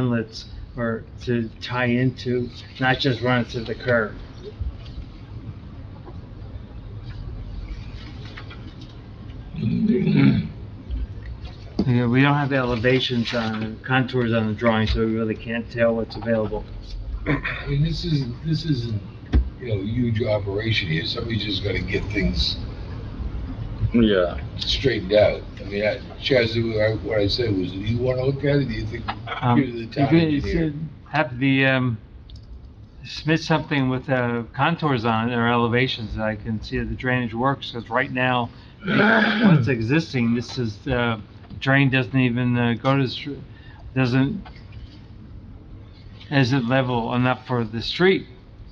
inlets or to tie into, not just run it to the curb. Yeah, we don't have elevations on, contours on the drawing, so we really can't tell what's available. I mean, this is, this isn't, you know, a huge operation here, somebody's just gotta get things Yeah, straightened out. I mean, I, Chaz, I- what I said was, do you wanna look at it, do you think, Um, give it to the town you could- you engineer? should Have the, um, submit something with, uh, contours on it or elevations that I can see that the drainage works, because right now, what's existing, this is, uh, drain doesn't even uh, go to, the str- doesn't, isn't level enough for the street.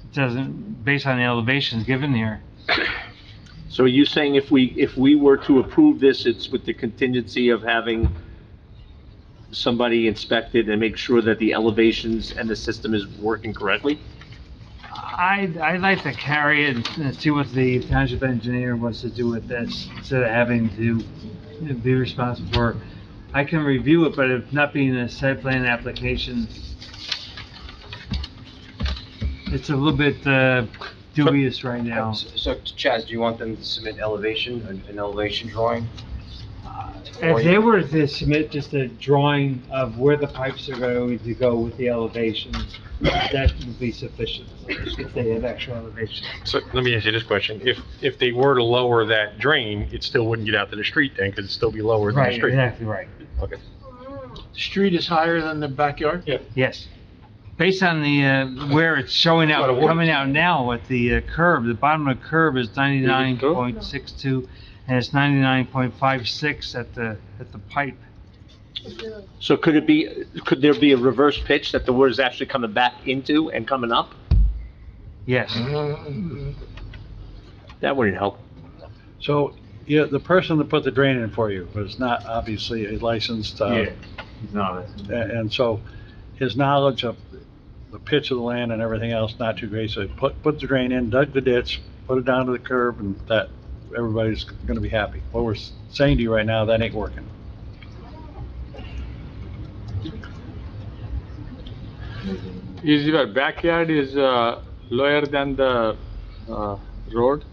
It Doesn't, based on the elevations given here. so you saying if we, if we were to approve this, it's with the contingency of having somebody inspected and make sure that the elevations and the system is working correctly? I'd, I'd like to carry it and see what the township engineer wants to do with this, instead of having to be responsible for. I can review it, but if not being a site plan application, it's a little bit uh, dubious right now. So Chaz, do you want them to submit elevation, an- an elevation drawing? Uh, If they were to submit just a drawing of where the pipes are going to go with the elevations, that would be sufficient, if they have actual elevations. So let me ask you this question. If, if they were to lower that drain, it still wouldn't get out to the street then, because it'd still be lower than the Right, street. exactly right. Okay. street is higher than the backyard? Yeah. Yes. Based on the, uh, where it's showing out, Lot of water. coming out now at the uh, curb, the bottom of the curb is ninety-nine point six-two, and it's ninety-nine point five-six at the, at the pipe. So could it be, could there be a reverse pitch that the water is actually coming back into and coming up? Yes. Mm-hmm. That wouldn't help. So, yeah, the person that put the drain in for you was not obviously a licensed, uh, a- and so his knowledge of the pitch of the land and everything else, not too great, so he put, put the drain in, dug the ditch, put it down to the curb, and that, everybody's gonna be happy. What we're s- saying to you right now, that ain't working. Is your backyard is uh, lower than the uh, road?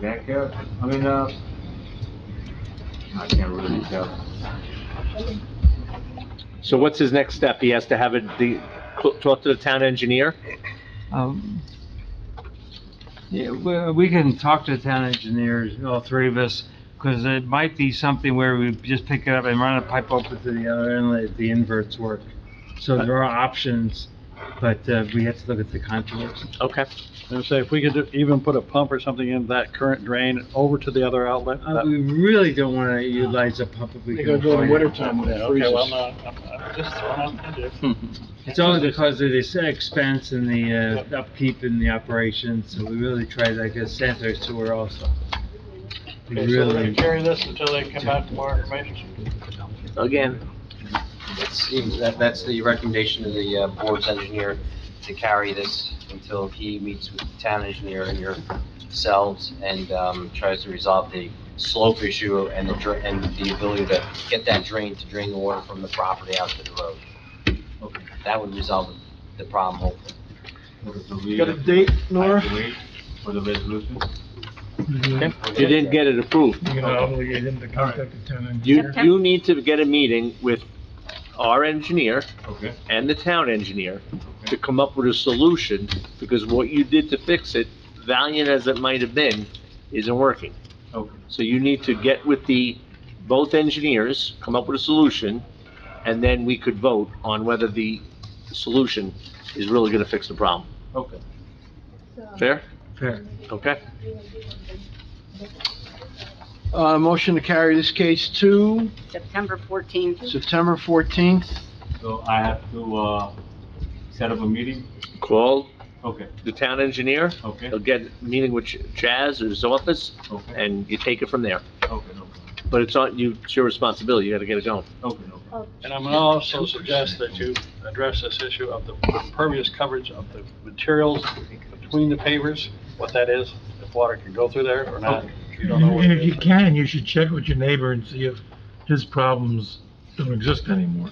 Backyard, I mean, uh, I can't really tell. So what's his next step? He has to have it, the, talk to the town engineer? Um, Yeah, we- we can talk to the town engineers, all three of us, because it might be something where we just pick it up and run a pipe over to the other inlet, if the inverts work. So there are options, but uh, we have to look at the contours. Okay. And say, if we could even put a pump or something in that current drain over to the other outlet, Uh, that- We really don't want to utilize a pump if we They go can. during avoid it. wintertime when it freezes. Okay, well, I'm just throwing out It's only because of this expense and the uh, upkeep and the operation, so we really try to like a sanitary sewer also. We Okay, so we're gonna Really, carry this until they come back with more information. Again, That seems, that, that's the recommendation of the uh, board's engineer to carry this until he meets with the town engineer and yourselves and, um, tries to resolve the slope issue and the, dra- and the ability to get that drain to drain the water from the property out to the road. That would resolve the problem hopefully. Got a date, Nora? you didn't get it approved. You're gonna obligate him to contact the town You, you need to get a meeting with our engineer and the town engineer to come up with a solution, because what you did to fix it, valiant as it might have been, isn't working. So you need to get with the, both engineers, come up with a solution, and then we could vote on whether the solution is really gonna fix the problem. Okay. Fair? fair. Okay. Uh, motion to carry this case to September 14th. September fourteenth. So I have to, uh, set up a meeting? Call Okay, the town engineer, okay, he'll get a meeting with Chaz or his office, okay, and you take it from there. okay, no, But it's on, you, it's your responsibility, you gotta get it going. okay, no. And And I'm gonna also suggest that you address this issue of the impervious coverage of the materials between the pavers, what that is, if water can go through there or not. You don't know what And it if Oh, you is. can, you should check with your neighbor and see if his problems don't exist anymore.